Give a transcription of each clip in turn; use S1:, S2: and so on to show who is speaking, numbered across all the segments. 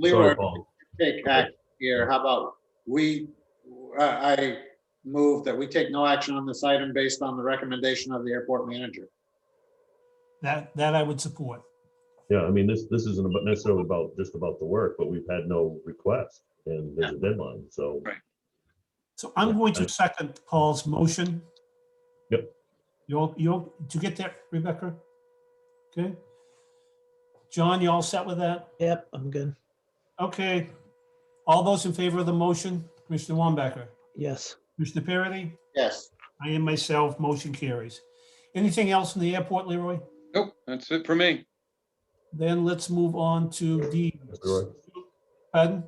S1: Leroy,
S2: Sorry, Paul.
S1: take act here. How about we, I I move that we take no action on this item based on the recommendation of the airport manager.
S3: That, that I would support.
S2: Yeah, I mean, this, this isn't about- necessarily about, just about the work, but we've had no request and there's a deadline, so.
S1: Right.
S3: So I'm going
S2: Yeah.
S3: to second Paul's motion.
S2: Yep.
S3: You'll, you'll, did you get there, Rebecca? Okay. John, you all set with that?
S4: Yep, I'm good.
S3: Okay. All those in favor of the motion, Commissioner Wambacher,
S4: Yes.
S3: Commissioner Parity,
S1: Yes.
S3: I am myself, motion carries. Anything else in the airport, Leroy?
S5: Nope, that's it for me.
S3: Then let's move on to D.
S2: Leroy.
S3: Pardon?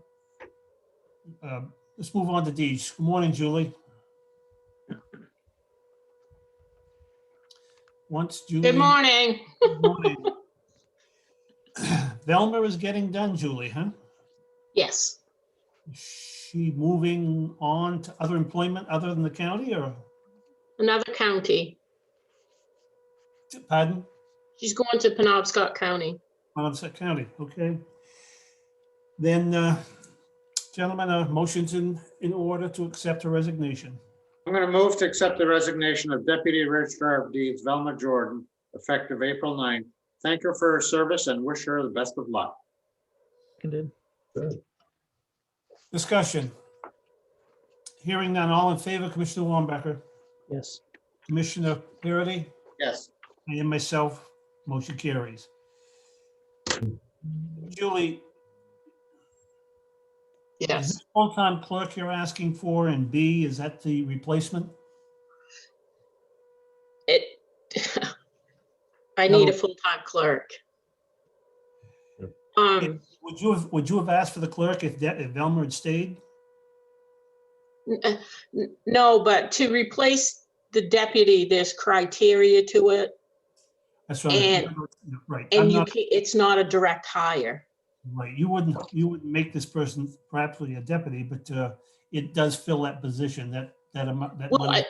S3: Um, Let's move on to Deej. Good morning, Julie. Once Julie.
S6: Good morning.
S3: Good morning. Velma is getting done, Julie, huh?
S6: Yes,
S3: Is She moving on to other employment other than the county or,
S6: another county.
S3: pardon?
S6: She's going to Penobscot County.
S3: Monmouth County, okay. Then, uh, gentlemen, a motion's in, in order to accept her resignation.
S1: I'm going to move to accept the resignation of Deputy Registrar of Deeds Velma Jordan, effective April 9th. Thank her for her service and wish her the best of luck.
S4: Good.
S3: Discussion. Hearing none, all in favor, Commissioner Wambacher,
S4: Yes.
S3: Commissioner Parity,
S1: Yes.
S3: and myself, motion carries. Julie, is
S6: Yes,
S3: this full-time clerk you're asking for, and B, is that the replacement?
S6: it. I need a full-time clerk.
S2: Yep.
S6: Um,
S3: Would you have, would you have asked for the clerk if that, if Velma had stayed?
S6: n- uh, n- no, but to replace the deputy, there's criteria to it.
S3: That's right.
S6: And-
S3: Right. I'm
S6: And you,
S3: not-
S6: ca- it's not a direct hire.
S3: Right, you wouldn't, you wouldn't make this person perhaps a deputy, but uh, it does fill that position, that, that amount, that
S6: Well,
S3: money.
S6: I,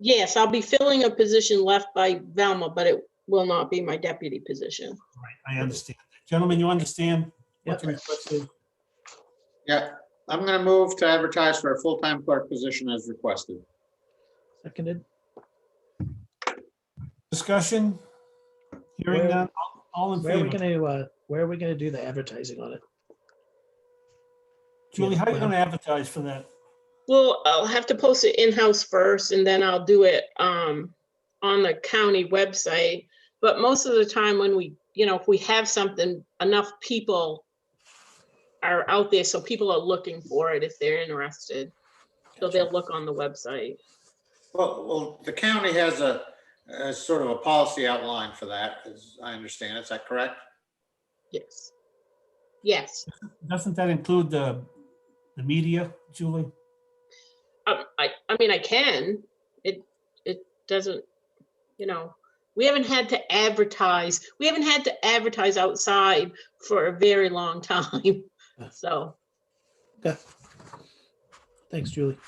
S6: yes, I'll be filling a position left by Velma, but it will not be my deputy position.
S3: Right, I understand. Gentlemen, you understand? what
S4: Yep.
S3: the request is?
S1: Yeah, I'm going to move to advertise for a full-time clerk position as requested.
S4: Seconded.
S3: Discussion? Hearing
S4: Where-
S3: none, all- all in
S4: Where are we
S3: favor?
S4: gonna, uh, where are we gonna do the advertising on it?
S3: Julie, how are you
S4: Yeah.
S3: going to advertise for that?
S6: Well, I'll have to post it in-house first and then I'll do it um on the county website. But most of the time when we, you know, if we have something, enough people are out there, so people are looking for it if they're interested. So they'll look on the website.
S1: Well, well, the county has a, a sort of a policy outline for that, as I understand. Is that correct?
S6: Yes. Yes,
S3: Doesn't that include the, the media, Julie?
S6: Um, I, I mean, I can. It, it doesn't, you know, we haven't had to advertise, we haven't had to advertise outside for a very long time. So.
S4: Okay. Thanks, Julie.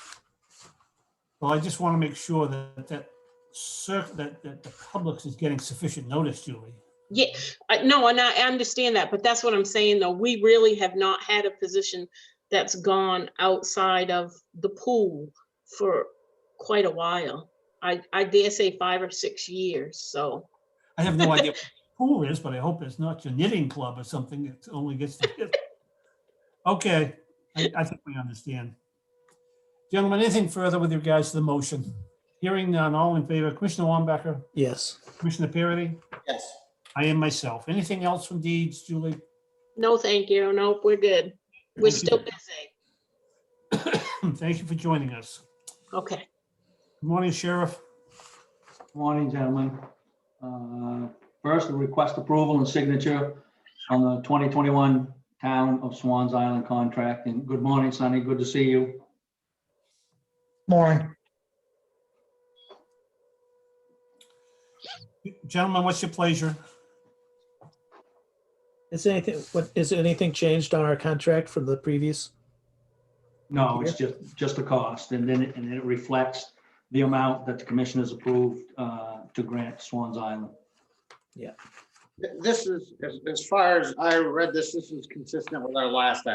S3: Well, I just want to make sure that, that, cer- that, that the public is getting sufficient notice, Julie.
S6: Yeah, I- no, and I I understand that, but that's what I'm saying, though. We really have not had a position that's gone outside of the pool for quite a while. I, I dare say five or six years, so,
S3: I have no idea who it is, but I hope it's not your knitting club or something that only gets to knit. Okay, I, I think we understand. Gentlemen, anything further with regards to the motion? Hearing none, all in favor, Commissioner Wambacher,
S4: Yes.
S3: Commissioner Parity,
S1: Yes.
S3: I am myself. Anything else from Deeds, Julie?
S6: no, thank you. Nope, we're good. We're
S3: Thank you.
S6: still busy.
S3: Thank you for joining us.
S6: Okay.
S3: Good morning, Sheriff.
S7: Morning, gentlemen. Uh, First, we request approval and signature on the 2021 Town of Swans Island contract. And good morning, Sonny. Good to see you.
S4: Lauren.
S3: Gentlemen, what's your pleasure?
S4: Is anything, what, is anything changed on our contract from the previous?
S7: No, it's just, just the cost. And then, it- and then it reflects the amount that the commission has approved uh, to grant Swans Island.
S1: This is, as, as far as I read this, this is consistent with our last act.